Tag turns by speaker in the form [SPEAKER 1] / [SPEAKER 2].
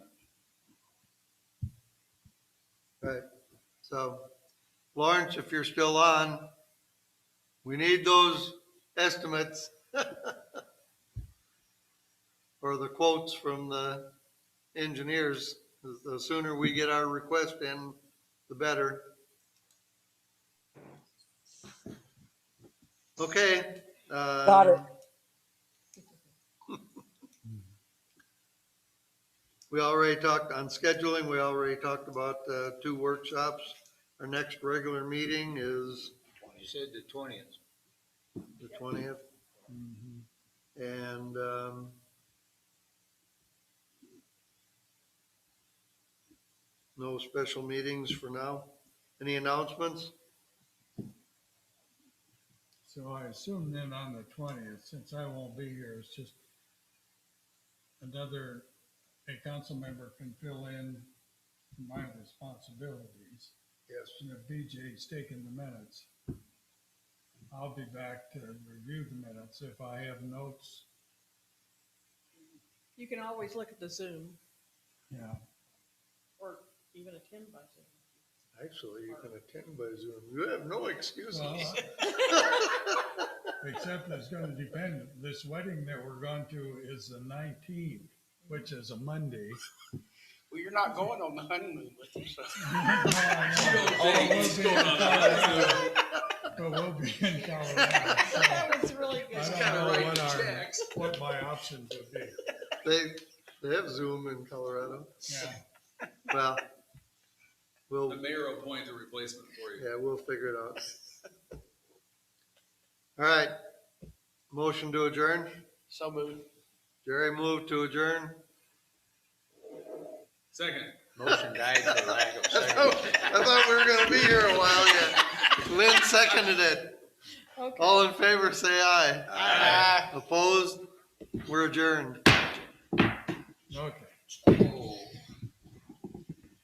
[SPEAKER 1] Right, so Lawrence, if you're still on, we need those estimates. Or the quotes from the engineers, the sooner we get our request in, the better. Okay.
[SPEAKER 2] Got it.
[SPEAKER 1] um, We already talked on scheduling, we already talked about uh, two workshops. Our next regular meeting is
[SPEAKER 3] You said the twentieth.
[SPEAKER 1] the twentieth.
[SPEAKER 4] Mm-hmm.
[SPEAKER 1] And, um, no special meetings for now. Any announcements?
[SPEAKER 5] So I assume then on the twentieth, since I won't be here, it's just another, a council member can fill in my responsibilities.
[SPEAKER 1] Yes.
[SPEAKER 5] And if DJ's taking the minutes, I'll be back to review the minutes if I have notes,
[SPEAKER 6] You can always look at the Zoom
[SPEAKER 5] yeah.
[SPEAKER 6] or even attend by Zoom.
[SPEAKER 1] Actually, you can attend by Zoom. You have no excuses.
[SPEAKER 5] Well, uh, Except it's gonna depend, this wedding that we're going to is the nineteenth, which is a Monday.
[SPEAKER 4] Well, you're not going on the honeymoon with him, so.
[SPEAKER 5] But we'll be in Colorado. so
[SPEAKER 6] That was really good.
[SPEAKER 5] I don't know what our, what my options would be.
[SPEAKER 4] uh,
[SPEAKER 1] They, they have Zoom in Colorado.
[SPEAKER 5] Yeah,
[SPEAKER 1] Well, we'll,
[SPEAKER 3] The mayor will appoint the replacement for you.
[SPEAKER 1] yeah, we'll figure it out. All right. Motion to adjourn.
[SPEAKER 4] So moved.
[SPEAKER 1] Jerry moved to adjourn.
[SPEAKER 3] Second.
[SPEAKER 7] Motion died for lack of
[SPEAKER 1] I
[SPEAKER 7] second.
[SPEAKER 1] thought I thought we were gonna be here a while yet. Lynn seconded it.
[SPEAKER 6] Okay.
[SPEAKER 1] All in favor, say aye.
[SPEAKER 7] Aye.
[SPEAKER 1] Opposed? We're adjourned.
[SPEAKER 5] okay.
[SPEAKER 7] Oh.